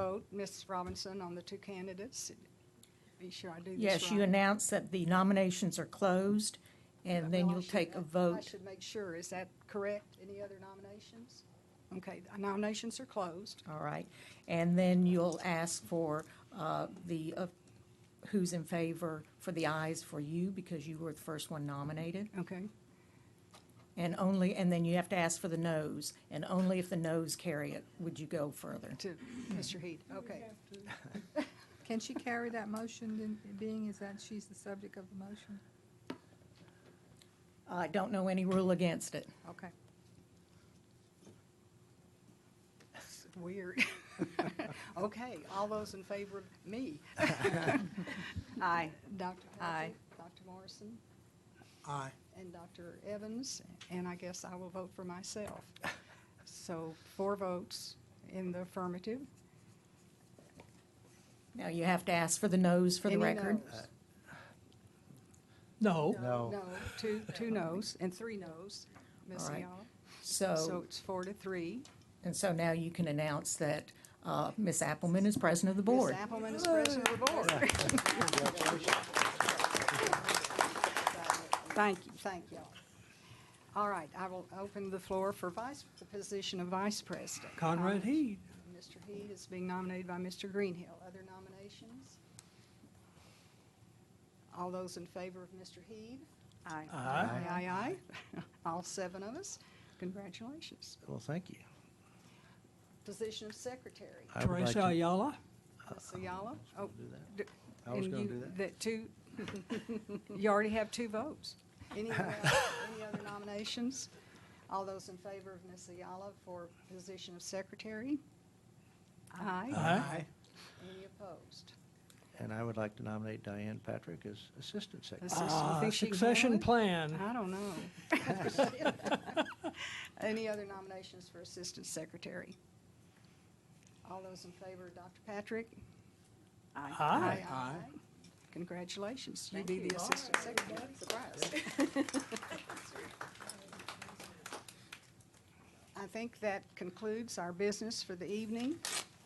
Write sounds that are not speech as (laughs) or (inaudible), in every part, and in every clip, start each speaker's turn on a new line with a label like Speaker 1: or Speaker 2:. Speaker 1: vote, Ms. Robinson, on the two candidates? Be sure I do this right.
Speaker 2: Yes, you announce that the nominations are closed, and then
Speaker 1: Well, I
Speaker 2: you'll
Speaker 1: should-
Speaker 2: take a
Speaker 1: I
Speaker 2: vote.
Speaker 1: should make sure, is that correct? Any other nominations? Okay, nominations are closed.
Speaker 2: All right. And then you'll ask for uh, the, uh, who's in favor for the ayes for you, because you were the first one nominated.
Speaker 1: Okay,
Speaker 2: And only, and then you have to ask for the noes, and only if the noes carry it would you go further.
Speaker 1: to Mr. Heath, okay.
Speaker 3: Can she carry that motion, then, being is that she's the subject of the motion?
Speaker 2: I don't know any rule against it.
Speaker 3: Okay.
Speaker 1: It's Weird. (laughs) Okay, all those in favor of me?
Speaker 2: (laughs)
Speaker 3: Aye.
Speaker 1: Dr.
Speaker 3: Aye.
Speaker 1: Patrick, Dr. Morrison,
Speaker 4: Aye.
Speaker 1: and Dr. Evans, and I guess I will vote for myself. So four votes in the affirmative.
Speaker 2: Now, you have to ask for the noes for the
Speaker 1: Any
Speaker 2: record.
Speaker 1: noes?
Speaker 4: No.
Speaker 1: No, two, two noes and three noes, Ms.
Speaker 2: All right. Oh.
Speaker 1: Ayala. So
Speaker 2: So,
Speaker 1: it's four to three.
Speaker 2: and so now you can announce that uh, Ms. Appleman is president of the
Speaker 1: Ms.
Speaker 2: board.
Speaker 1: Appleman is president of the board. Thank you, thank you. All right, I will open the floor for vice, the position of vice president.
Speaker 4: Conrad Heed.
Speaker 1: Mr. Heed is being nominated by Mr. Greenhill. Other nominations? All those in favor of Mr. Heed? Aye.
Speaker 4: Aye.
Speaker 1: Aye, aye, aye. All seven of us. Congratulations.
Speaker 5: Well, thank you.
Speaker 1: Position of secretary,
Speaker 5: I would like
Speaker 4: Teresa
Speaker 5: to-
Speaker 4: Ayala.
Speaker 1: Ms. Ayala.
Speaker 5: I
Speaker 1: Oh,
Speaker 5: was gonna do that.
Speaker 1: d-
Speaker 5: I was
Speaker 1: and
Speaker 5: gonna
Speaker 1: you-
Speaker 5: do that.
Speaker 1: two, (laughs) you already have two votes. Any other any other nominations? All those in favor of Ms. Ayala for position of secretary? Aye.
Speaker 4: Aye.
Speaker 1: Any opposed?
Speaker 5: And I would like to nominate Diane Patrick as assistant secretary.
Speaker 1: Assist- you
Speaker 4: Ah,
Speaker 1: think she can handle
Speaker 4: Succession
Speaker 1: it?
Speaker 4: plan.
Speaker 1: I don't know. (laughs) Any other nominations for assistant secretary? All those in favor of Dr. Patrick?
Speaker 4: Aye.
Speaker 1: aye. Congratulations, you be the assistant secretary. Surprise. (laughs) I think that concludes our business for the evening.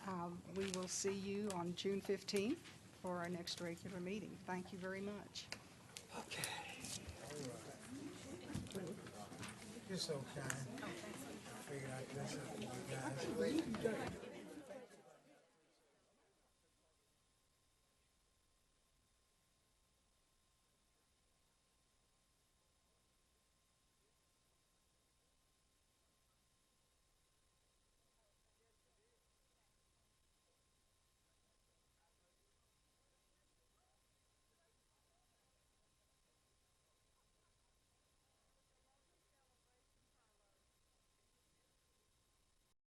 Speaker 1: Um, We will see you on June 15th for our next regular meeting. Thank you very much.
Speaker 4: You're so kind. Figured out that's up to you guys.